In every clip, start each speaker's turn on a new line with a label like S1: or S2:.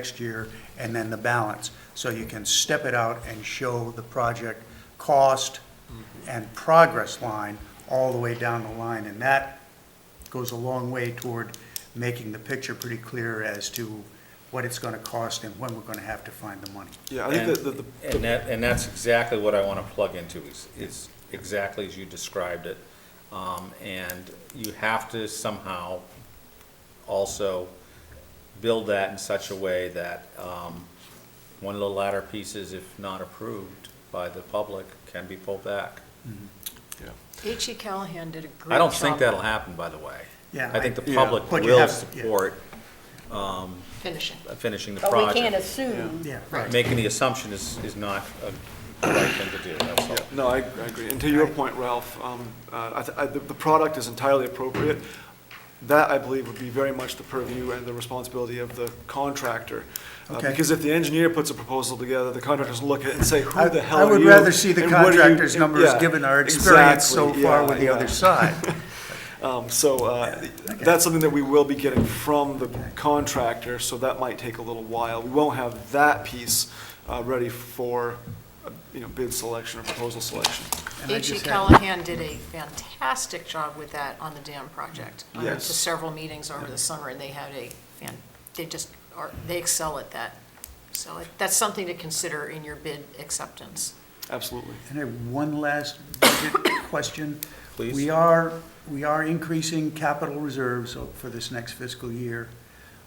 S1: next year, and then the balance. So you can step it out and show the project cost
S2: Mm-hmm.
S1: and progress line all the way down the line. And that goes a long way toward making the picture pretty clear as to what it's going to cost and when we're going to have to find the money.
S2: Yeah, I think
S3: And
S2: that the, the,
S3: and that, and that's exactly what I want to plug into, is, is exactly as you described it. Um, and you have to somehow also build that in such a way that, um, one of the latter pieces, if not approved by the public, can be pulled back.
S4: H.E. E Callahan did a great job.
S3: I don't think that'll happen, by the way.
S1: Yeah,
S3: I think the
S2: I- yeah.
S3: public
S1: But you
S3: will
S1: have- yeah.
S3: support
S4: Finishing.
S3: finishing the
S5: But we can't
S3: project.
S5: assume.
S1: Yeah, right.
S3: Making the assumption is, is not a right thing to do, that's all.
S2: no, I, I agree. And to your point, Ralph, um, uh, I, th- I, the, the product is entirely appropriate. That, I believe, would be very much the purview and the responsibility of the contractor. Uh,
S1: Okay.
S2: Because if the engineer puts a proposal together, the contractor doesn't look at it and say,
S1: I
S2: who the hell
S1: I
S2: are you?
S1: would rather see the
S2: and what are you-
S1: contractor's numbers,
S2: Yeah,
S1: given our experience so
S2: exactly.
S1: far
S2: Yeah,
S1: with the
S2: yeah.
S1: other side.
S2: Um, So uh, that's something that we will be getting from the contractor, so that might take a little while. We won't have that piece uh, ready for, uh, you know, bid selection or proposal selection.
S1: And I
S4: H.E.
S1: just had-
S4: E Callahan did a fantastic job with that on the dam project. I went to
S2: Yes.
S4: several meetings over the summer, and they had a, fan- they just, are they excel at that. So it- that's something to consider in your bid acceptance.
S2: Absolutely.
S1: And I have one last budget question.
S3: Please.
S1: We are, we are increasing capital reserves for this next fiscal year.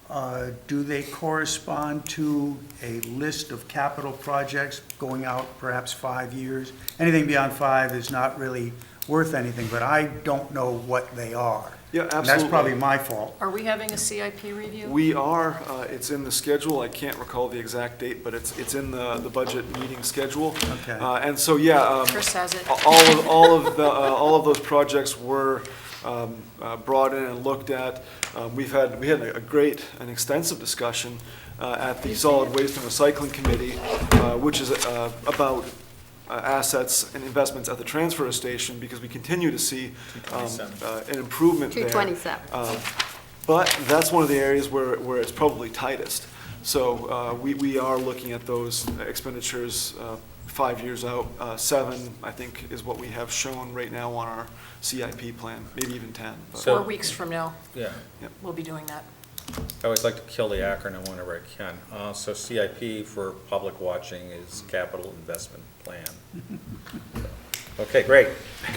S1: Uh, Do they correspond to a list of capital projects going out perhaps five years? Anything beyond five is not really worth anything, but I don't know what they are.
S2: Yeah,
S1: And that's probably
S2: absolutely.
S1: my fault.
S4: Are we having a CIP review?
S2: We are, uh, it's in the schedule, I can't recall the exact date, but it's, it's in the, the budget meeting schedule.
S1: Okay.
S2: Uh, And so, yeah. um,
S4: Chris has
S3: Oh.
S4: it.
S2: All of, all of the, uh, all of those projects were um, uh, brought in and looked at. Um, We've had, we had a a great and extensive discussion uh, at the Solid Waste and Recycling Committee, uh, which is uh, about uh, assets and investments at the transfer station, because we continue to see um,
S3: 227.
S2: uh, an improvement there.
S5: 227.
S2: Um, But that's one of the areas where, where it's probably tightest. So uh, we, we are looking at those expenditures uh, five years out. Uh, Seven, I think, is what we have shown right now on our CIP plan, maybe even 10. but-
S3: So-
S4: Four weeks from now,
S3: Yeah.
S4: we'll be doing that.
S3: I always like to kill the acronym whenever I can. Uh, So CIP for public watching is Capital Investment Plan. Okay, great.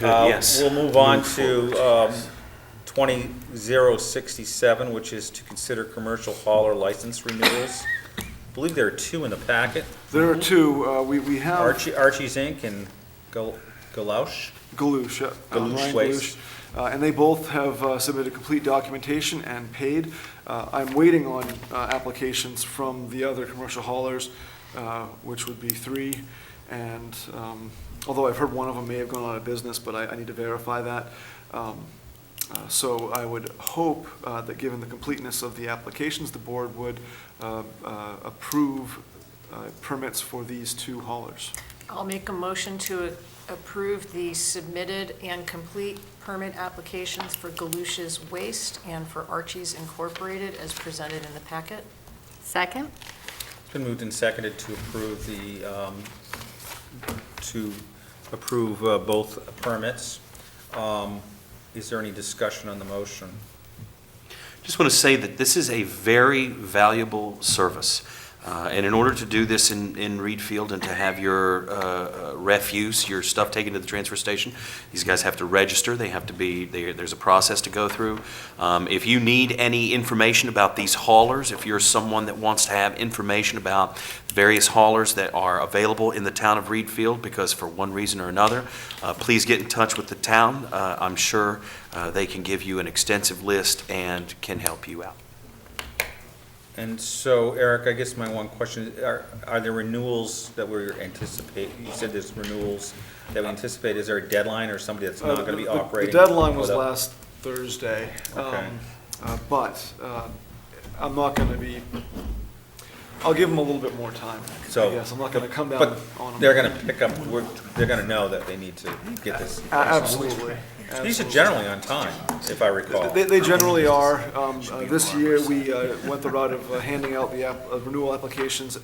S3: Uh,
S2: yes.
S3: We'll move on to um, 20067, which is to consider commercial hauler license renewals. I believe there are two in the packet,
S2: There are two, uh, we, we have
S3: Archie- Archie's Inc. and Gal- Galoush.
S2: Galush. uh,
S3: Galush
S2: Ryan
S3: Waste.
S2: Galush, uh, And they both have uh, submitted complete documentation and paid. Uh, I'm waiting on uh, applications from the other commercial haulers, uh, which would be three. And um, although I've heard one of them may have gone out of business, but I, I need to verify that. Um, uh, So I would hope uh, that, given the completeness of the applications, the board would uh, uh, approve uh, permits for these two haulers.
S4: I'll make a motion to approve the submitted and complete permit applications for Galusha's Waste and for Archie's Incorporated as presented in the packet.
S5: Second?
S3: It's been moved and seconded to approve the, um, to approve uh, both permits. Um, Is there any discussion on the motion?
S6: Just want to say that this is a very valuable service. Uh, And in order to do this in, in Reed Field and to have your uh, uh, refuse, your stuff taken to the transfer station, these guys have to register, they have to be, there- there's a process to go through. Um, If you need any information about these haulers, if you're someone that wants to have information about various haulers that are available in the town of Reed Field, because for one reason or another, uh, please get in touch with the town. Uh, I'm sure uh, they can give you an extensive list and can help you out.
S3: And so, Eric, I guess my one question, is, are, are there renewals that we're anticipate, you said there's renewals that we anticipate, is there a deadline or somebody that's not
S2: Uh,
S3: gonna be
S2: the- the-
S3: operating?
S2: The deadline was
S3: without-
S2: last Thursday.
S3: Okay.
S2: um, uh, But uh, I'm not going to be, I'll give them a little bit more time.
S3: So.
S2: Yes, I'm not going to come down on
S3: But
S2: them.
S3: they're gonna pick up, we're, they're gonna know that they need to get this.
S2: A- Absolutely.
S3: These are generally on time, if I recall.
S2: They, they generally are. Um, uh, This year, we uh, went the route of uh, handing out the app- uh, renewal applications